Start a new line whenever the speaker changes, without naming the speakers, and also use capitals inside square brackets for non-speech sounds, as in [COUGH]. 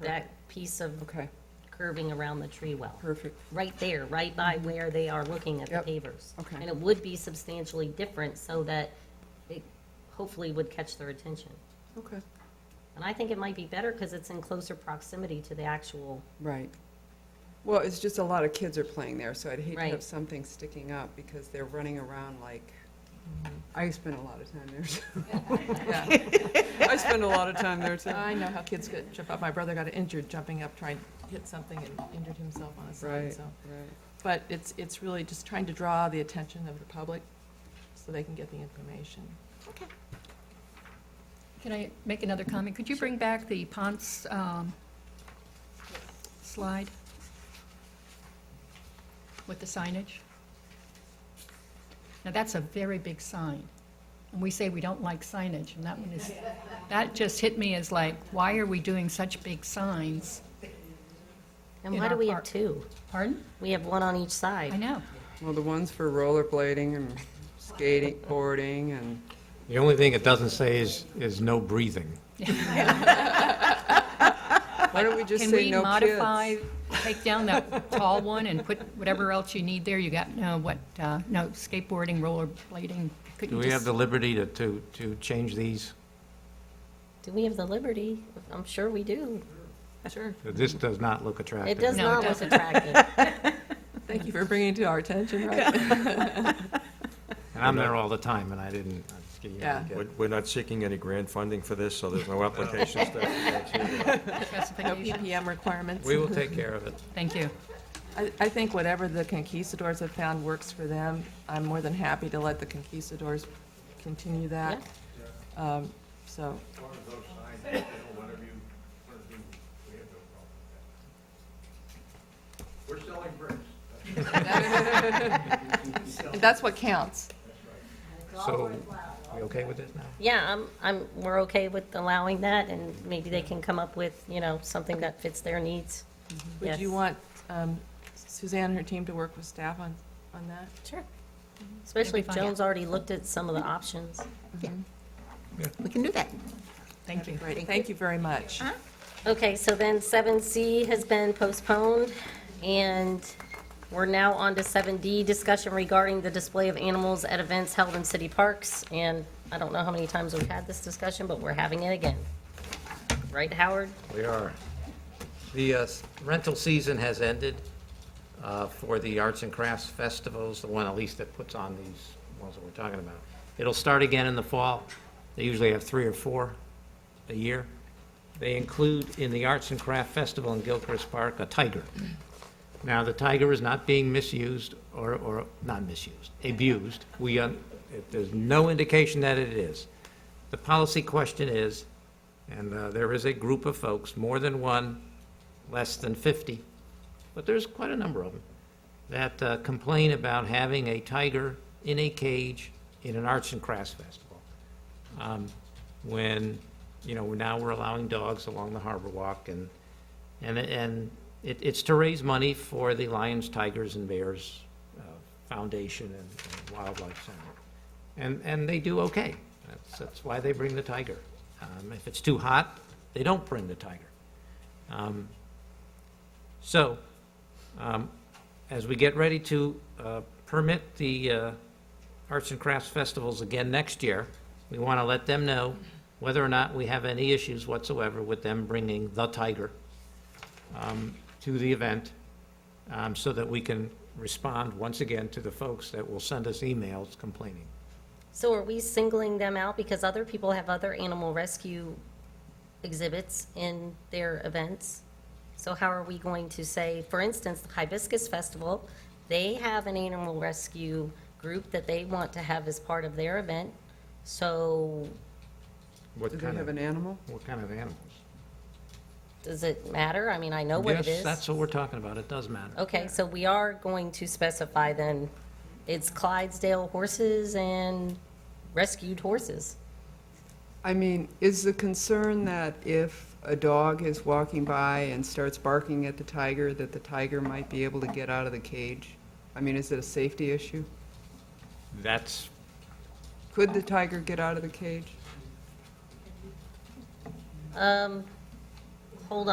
that piece of
Okay,
curving around the tree well.
perfect.
Right there, right by where they are looking at the pavers.
Okay.
And it would be substantially different so that it hopefully would catch their attention.
Okay.
And I think it might be better because it's in closer proximity to the actual,
Right. Well, it's just a lot of kids are playing there, so I'd hate to
Right.
have something sticking up because they're running around like, I spend a lot of time there.
[LAUGHS]
[LAUGHS]
Yeah,
I spend a lot of time there too.
I know how kids get, jump up. My brother got injured jumping up, trying to hit something and injured himself on a sign,
Right,
so.
right.
But it's, it's really just trying to draw the attention of the public so they can get the information.
Can I make another comment? Could you bring back the Ponce um, slide with the signage? Now, that's a very big sign. And we say we don't like signage, and that one
[LAUGHS]
is, that just hit me as like, why are we doing such big signs?
and
In
why do
our
we have
park.
two?
Pardon?
We have one on each
I
side.
know.
Well, the ones for rollerblading and skating, boarding and,
The only thing it doesn't say is, is no breathing.
why don't we just
Can
say
we
no kids?
modify, take
[LAUGHS]
down that tall one and put whatever else you need there? You got, no, what, uh, no skateboarding, rollerblading?
Do we have the liberty to, to, to change these?
Do we have the liberty? I'm sure we do.
Sure.
This does not look attractive.
It does
No, it
not look
doesn't.
attractive. [LAUGHS]
Thank you for bringing it to our attention, right?
And I'm there all the time, and I didn't. I just give you-
Yeah.
We're- We're not seeking any grant funding for this, so there's no application stuff.
No
specification?
PPM requirements.
We will take care of it.
Thank you.
I, I think whatever the conquistadors have found works for them, I'm more than happy to let the conquistadors continue that. Um, So,
We're selling bricks.
and [LAUGHS] that's what counts.
So, we okay with this now?
Yeah, I'm, I'm, we're okay with allowing that, and maybe they can come up with, you know, something that fits their needs.
Would you
Yes.
want um, Suzanne and her team to work with staff on, on that?
Sure. Especially if
It'll be fun, yeah.
Joan's already looked at some of the options.
We can do that. Thank you.
Great, thank you very much.
Okay, so then 7C has been postponed, and we're now on to 7D, discussion regarding the display of animals at events held in city parks. And I don't know how many times we've had this discussion, but we're having it again. Right, Howard?
We are. The uh, rental season has ended uh, for the Arts and Crafts Festivals, the one at least that puts on these ones that we're talking about. It'll start again in the fall. They usually have three or four a year. They include in the Arts and Craft Festival in Gilchrist Park a tiger. Now, the tiger is not being misused or, or, not misused, abused. We, uh, if there's no indication that it is. The policy question is, and uh, there is a group of folks, more than one, less than 50, but there's quite a number of them, that uh, complain about having a tiger in a cage in an arts and crafts festival. Um, When, you know, now we're allowing dogs along the harbor walk and, and, and it, it's to raise money for the Lions, Tigers, and Bears uh, Foundation and and Wildlife Center. And, and they do okay. That's, that's why they bring the tiger. Um, if it's too hot, they don't bring the tiger. Um, so, um, as we get ready to, uh, permit the, uh, Arts and Crafts Festivals again next year, we want to let them know whether or not we have any issues whatsoever with them bringing the tiger, um, to the event, um, so that we can respond once again to the folks that will send us emails complaining.
So are we singling them out because other people have other animal rescue exhibits in their events? So how are we going to say, for instance, the Hibiscus Festival, they have an animal rescue group that they want to have as part of their event. So
What
Do they
kind
have
of,
an animal?
what kind of animals?
does it matter? I mean, I know what it
Yes, that's
is. Oh.
what we're talking about. It does matter.
Okay, so we are going to specify then, it's Clydesdale horses and rescued horses.
I mean, is the concern that if a dog is walking by and starts barking at the tiger, that the tiger might be able to get out of the cage? I mean, is it a safety issue?
That's,
Could the tiger get out of the cage?
Um, hold on.